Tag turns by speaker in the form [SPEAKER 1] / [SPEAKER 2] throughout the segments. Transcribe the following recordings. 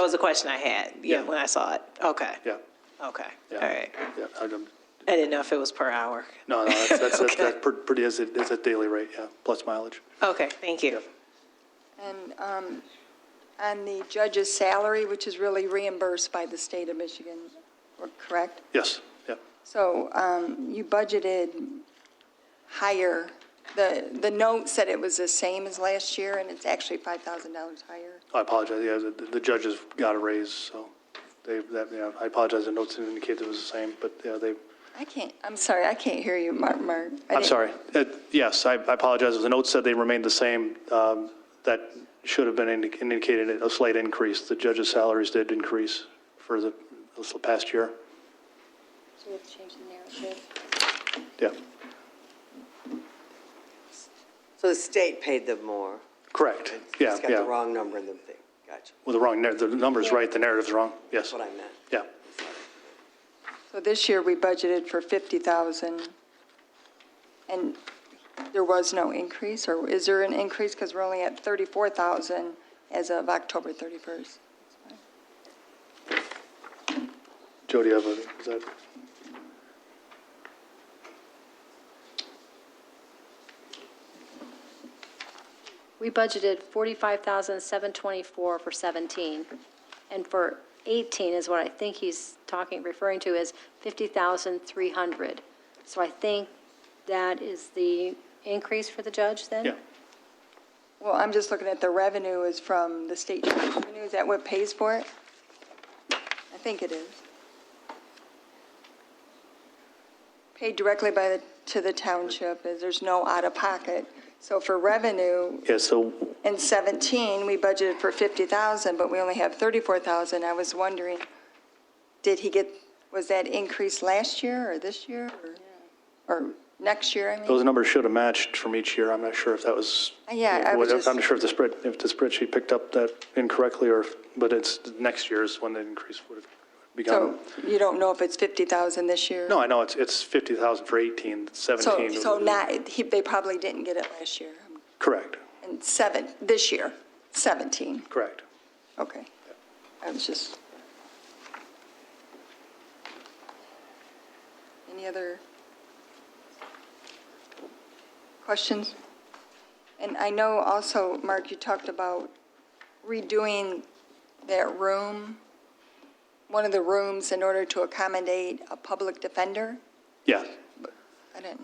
[SPEAKER 1] That was a question I had, yeah,
[SPEAKER 2] Yeah.
[SPEAKER 1] when I saw it. Okay,
[SPEAKER 2] Yeah,
[SPEAKER 1] okay, all
[SPEAKER 2] yeah.
[SPEAKER 1] right.
[SPEAKER 2] Yeah, I don't-
[SPEAKER 1] I didn't know if it was per hour.
[SPEAKER 2] no, no, that's, that's, that's-
[SPEAKER 1] Okay.
[SPEAKER 2] that's per- pretty, is it, is a daily rate, yeah, plus mileage.
[SPEAKER 1] Okay, thank you.
[SPEAKER 3] And um, on the judge's salary, which is really reimbursed by the state of Michigan, correct?
[SPEAKER 2] Yes, yeah.
[SPEAKER 3] So um, you budgeted higher, the, the note said it was the same as last year, and it's actually $5,000 higher.
[SPEAKER 2] I apologize, yeah, the, the judges got a raise, so they, that, yeah, I apologize, the notes didn't indicate it was the same, but, yeah, they,
[SPEAKER 3] I can't, I'm sorry, I can't hear you, Mark, Mark. I
[SPEAKER 2] I'm
[SPEAKER 3] didn't-
[SPEAKER 2] sorry. Uh, Yes, I I apologize. The note said they remained the same. Um, That should have been indi- indicated a slight increase. The judges' salaries did increase for the this past year.
[SPEAKER 4] So we have to change the narrative.
[SPEAKER 2] Yeah,
[SPEAKER 5] So the state paid them more.
[SPEAKER 2] correct. Yeah,
[SPEAKER 5] It's got the
[SPEAKER 2] yeah.
[SPEAKER 5] wrong number in the thing. Gotcha.
[SPEAKER 2] Well, the wrong, nar- the number's right, the narrative's wrong. Yes.
[SPEAKER 5] That's what I meant.
[SPEAKER 2] Yeah,
[SPEAKER 3] So this year, we budgeted for 50,000, and there was no increase, or is there an increase? Because we're only at 34,000 as of October 31st.
[SPEAKER 2] Jody, you have a- is that,
[SPEAKER 4] We budgeted 45,724 for 17, and for 18 is what I think he's talking, referring to as 50,300. So I think that is the increase for the judge then?
[SPEAKER 2] yeah.
[SPEAKER 3] Well, I'm just looking at the revenue is from the state tax revenue, is that what pays for it? I think it is. Paid directly by the, to the township, is there's no out-of-pocket. So for revenue,
[SPEAKER 2] Yeah, so,
[SPEAKER 3] In 17, we budgeted for 50,000, but we only have 34,000. I was wondering, did he get, was that increase last year or this year or, or next year, I mean?
[SPEAKER 2] those numbers should have matched from each year. I'm not sure if that was.
[SPEAKER 3] Yeah, I was
[SPEAKER 2] what-
[SPEAKER 3] just-
[SPEAKER 2] I'm not sure if the spread, if the spreadsheet picked up that incorrectly or, if- but it's next year's when the increase would have begun.
[SPEAKER 3] So you don't know if it's 50,000 this year?
[SPEAKER 2] No, I know, it's, it's 50,000 for 18,
[SPEAKER 3] So,
[SPEAKER 2] 17.
[SPEAKER 3] so not, he, they probably didn't get it last year.
[SPEAKER 2] Correct,
[SPEAKER 3] And seven, this year, 17,
[SPEAKER 2] correct.
[SPEAKER 3] okay. I was just. Any other questions? And I know also, Mark, you talked about redoing that room, one of the rooms in order to accommodate a public defender?
[SPEAKER 2] Yeah.
[SPEAKER 3] I didn't,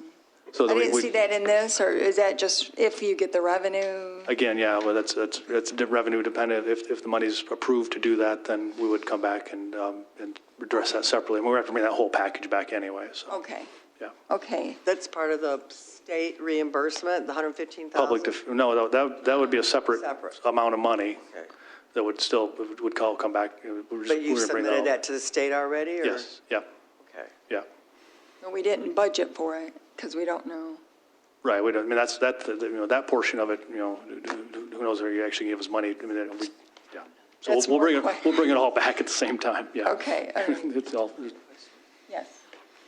[SPEAKER 2] So
[SPEAKER 3] I
[SPEAKER 2] that we-
[SPEAKER 3] didn't
[SPEAKER 2] we-
[SPEAKER 3] see that in this, or is that just if you get the revenue?
[SPEAKER 2] Again, yeah, well, that's, that's, that's de- revenue dependent. If, if the money's approved to do that, then we would come back and, um, and address that separately. And we have to bring that whole package back anyway,
[SPEAKER 5] Oh.
[SPEAKER 2] so,
[SPEAKER 3] Okay,
[SPEAKER 2] yeah.
[SPEAKER 3] okay.
[SPEAKER 5] That's part of the state reimbursement, the 115,000?
[SPEAKER 2] Public, def- no, that, that would be a separate
[SPEAKER 5] Separate.
[SPEAKER 2] amount of money
[SPEAKER 5] Okay.
[SPEAKER 2] that would still, would call, come back. We're just-
[SPEAKER 5] But you
[SPEAKER 2] we're gonna bring
[SPEAKER 5] submitted
[SPEAKER 2] all-
[SPEAKER 5] that to the state already, or?
[SPEAKER 2] Yes, yeah,
[SPEAKER 5] Okay.
[SPEAKER 2] yeah.
[SPEAKER 3] But We didn't budget for it because we don't know.
[SPEAKER 2] Right, we don't, I mean, that's, that, that- you know, that portion of it, you know, who- who knows, if you actually give us money, I mean, that we, yeah. So we'll,
[SPEAKER 3] That's
[SPEAKER 2] we'll bring, it
[SPEAKER 3] more-
[SPEAKER 2] we'll bring it all back at the same time, yeah.
[SPEAKER 3] Okay, all right.
[SPEAKER 2] It's all,
[SPEAKER 3] Yes.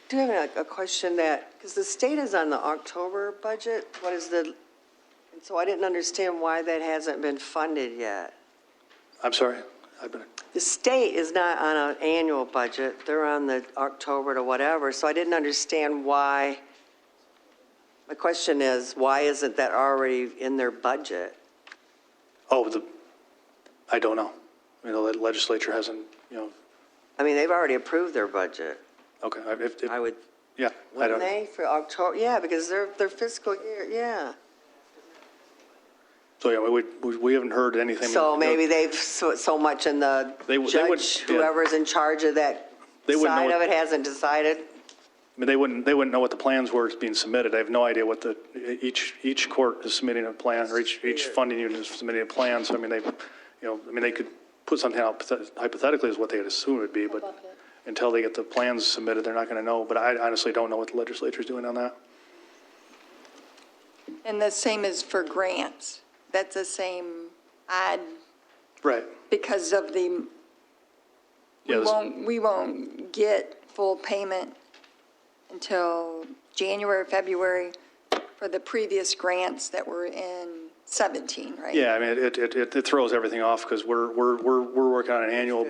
[SPEAKER 5] Do you have a, a question that, because the state is on the October budget, what is the, and so I didn't understand why that hasn't been funded yet.
[SPEAKER 2] I'm sorry, I've been,
[SPEAKER 5] The state is not on an annual budget, they're on the October to whatever, so I didn't understand why. My question is, why isn't that already in their budget?
[SPEAKER 2] oh, the, I don't know. I mean, the legislature hasn't, you know,
[SPEAKER 5] I mean, they've already approved their budget,
[SPEAKER 2] okay, I- if, if,
[SPEAKER 5] I would,
[SPEAKER 2] yeah, I
[SPEAKER 5] wouldn't
[SPEAKER 2] don't,
[SPEAKER 5] they, for October, yeah, because their, their fiscal year, yeah.
[SPEAKER 2] so, yeah, we, we, we haven't heard anything.
[SPEAKER 5] So maybe they've, so so much in the
[SPEAKER 2] They would- they would-
[SPEAKER 5] judge,
[SPEAKER 2] yeah.
[SPEAKER 5] whoever's in charge of that
[SPEAKER 2] They wouldn't know
[SPEAKER 5] side of
[SPEAKER 2] what-
[SPEAKER 5] it hasn't decided.
[SPEAKER 2] I mean, they wouldn't, they wouldn't know what the plans were that's being submitted. I have no idea what the, each, each court is submitting a plan, or each, each funding unit is submitting a plan, so I mean, they, you know, I mean, they could put something out hypothetically is what they'd assume it would be, but until they get the plans submitted, they're not going to know, but I honestly don't know what the legislature's doing on that.
[SPEAKER 3] And the same is for grants. That's the same odd
[SPEAKER 2] Right.
[SPEAKER 3] because of the,
[SPEAKER 2] Yeah,
[SPEAKER 3] we
[SPEAKER 2] this-
[SPEAKER 3] won't, we won't get full payment until January, February for the previous grants that were in 17, right?
[SPEAKER 2] Yeah, I mean, it, it, it it throws everything off because we're, we're, we're, we're working on an annual